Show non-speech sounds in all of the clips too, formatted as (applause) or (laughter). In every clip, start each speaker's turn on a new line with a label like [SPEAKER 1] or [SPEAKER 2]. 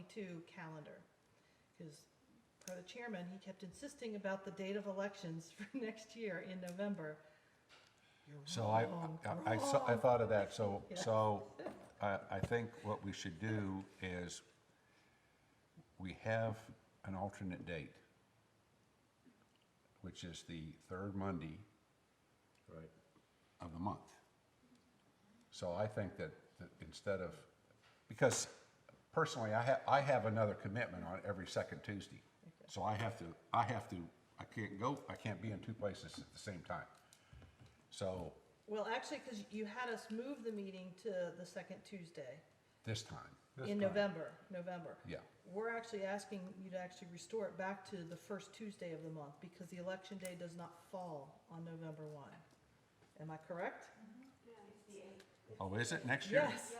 [SPEAKER 1] 2022 calendar. Because per the chairman, he kept insisting about the date of elections (laughs) for next year in November. You're
[SPEAKER 2] So I,
[SPEAKER 1] wrong,
[SPEAKER 2] I, I saw- I
[SPEAKER 1] wrong.
[SPEAKER 2] thought of that, so,
[SPEAKER 1] Yeah.
[SPEAKER 2] so I, I think what we should do is we have an alternate date, which is the third Monday
[SPEAKER 3] Right.
[SPEAKER 2] of the month. So I think that, that instead of, because personally, I have, I have another commitment on every second Tuesday. So I have to, I have to, I can't go, I can't be in two places at the same time. So
[SPEAKER 1] Well, actually, because you had us move the meeting to the second Tuesday
[SPEAKER 2] this time,
[SPEAKER 1] in November, November.
[SPEAKER 2] yeah.
[SPEAKER 1] We're actually asking you to actually restore it back to the first Tuesday of the month because the election day does not fall on November 1. Am I correct?
[SPEAKER 2] Oh, is it next year?
[SPEAKER 1] Yes,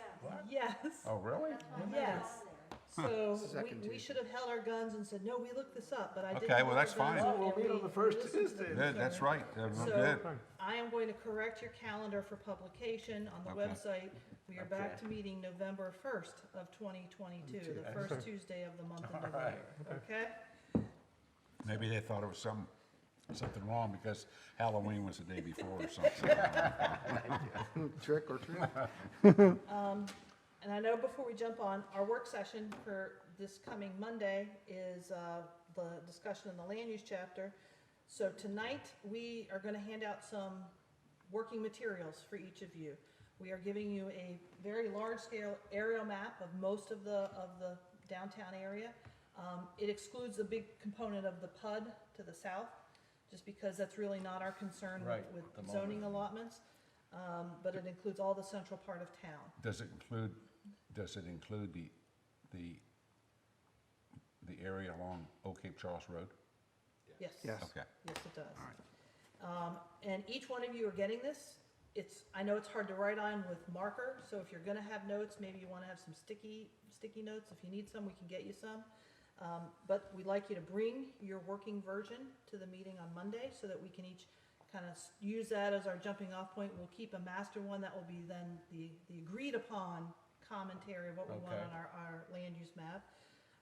[SPEAKER 1] yes,
[SPEAKER 2] Oh, really?
[SPEAKER 1] yes. So
[SPEAKER 4] Second
[SPEAKER 1] we, we
[SPEAKER 4] Tuesday.
[SPEAKER 1] should have held our guns and said, no, we looked this up, but I didn't.
[SPEAKER 2] Okay, well,
[SPEAKER 1] look
[SPEAKER 2] that's
[SPEAKER 1] the guns
[SPEAKER 2] fine.
[SPEAKER 1] up,
[SPEAKER 2] Oh,
[SPEAKER 3] we'll
[SPEAKER 1] and
[SPEAKER 3] meet
[SPEAKER 1] we-
[SPEAKER 3] on the first
[SPEAKER 1] we listened to
[SPEAKER 3] Tuesday.
[SPEAKER 1] the
[SPEAKER 2] Good, that's
[SPEAKER 1] survey.
[SPEAKER 2] right, that's
[SPEAKER 1] So-
[SPEAKER 2] good.
[SPEAKER 1] I am going to correct your calendar for publication on the
[SPEAKER 2] Okay.
[SPEAKER 1] website. We are back to meeting November first of twenty twenty-two, the first Tuesday of the
[SPEAKER 3] (laughs)
[SPEAKER 1] month of November, okay?
[SPEAKER 2] Maybe they thought it was some, something wrong because Halloween was the day before or something.
[SPEAKER 4] Trick or treat?
[SPEAKER 1] And I know before we jump on, our work session for this coming Monday is uh, the discussion in the land use chapter. So tonight, we are going to hand out some working materials for each of you. We are giving you a very large-scale aerial map of most of the, of the downtown area. Um, It excludes the big component of the PUD to the south, just because that's really not our concern with-
[SPEAKER 3] Right, at the
[SPEAKER 1] with
[SPEAKER 3] moment.
[SPEAKER 1] zoning allotments. Um, But it includes all the central part of town.
[SPEAKER 2] Does it include, does it include the, the, the area along Old Cape Charles Road?
[SPEAKER 1] Yes.
[SPEAKER 4] Yes.
[SPEAKER 2] Okay.
[SPEAKER 1] Yes, it does. Um, and each one of you are getting this. It's, I know it's hard to write on with marker, so if you're gonna have notes, maybe you wanna have some sticky, sticky notes. If you need some, we can get you some. Um, but we'd like you to bring your working version to the meeting on Monday so that we can each kind of use that as our jumping off point. We'll keep a master one that will be then the, the agreed upon commentary of what we want
[SPEAKER 3] Okay.
[SPEAKER 1] on our, our land use map.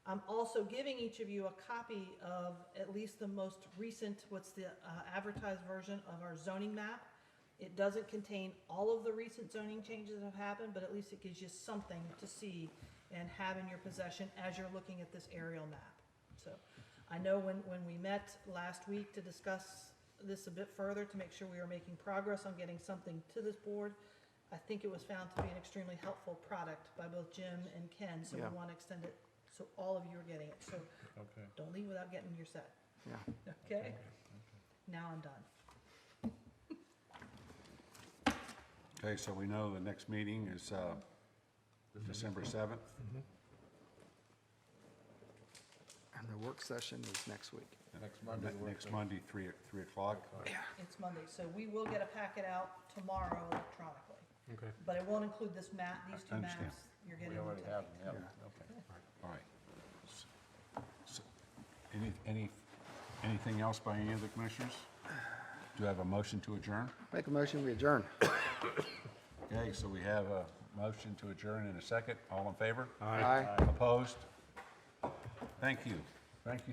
[SPEAKER 1] I'm also giving each of you a copy of at least the most recent, what's the uh, advertised version of our zoning map. It doesn't contain all of the recent zoning changes that have happened, but at least it gives you something to see and have in your possession as you're looking at this aerial map. So I know when, when we met last week to discuss this a bit further, to make sure we were making progress on getting something to this board, I think it was found to be an extremely helpful product by both Jim and Ken, so we
[SPEAKER 4] Yeah.
[SPEAKER 1] want to extend it, so all of you are getting it. So
[SPEAKER 3] Okay.
[SPEAKER 1] don't leave without getting your set,
[SPEAKER 4] Yeah.
[SPEAKER 1] okay? Now I'm done.
[SPEAKER 2] Okay, so we know the next meeting is, uh, December seventh.
[SPEAKER 4] And the work session is next week.
[SPEAKER 3] Next Monday. we're-
[SPEAKER 2] Next Monday, three, three o'clock.
[SPEAKER 1] It's Monday, so we will get a packet out tomorrow electronically.
[SPEAKER 5] Okay.
[SPEAKER 1] But it won't include this map, these two
[SPEAKER 2] Understand.
[SPEAKER 1] maps you're getting
[SPEAKER 3] We already
[SPEAKER 1] tonight.
[SPEAKER 3] have them, yeah, okay.
[SPEAKER 2] All right. S- s- Any, any, anything else by any of the commissioners? Do I have a motion to adjourn?
[SPEAKER 4] Make a motion, we adjourn.
[SPEAKER 2] Okay, so we have a motion to adjourn in a second. All in favor?
[SPEAKER 4] Aye.
[SPEAKER 2] Opposed? Thank you. Thank you.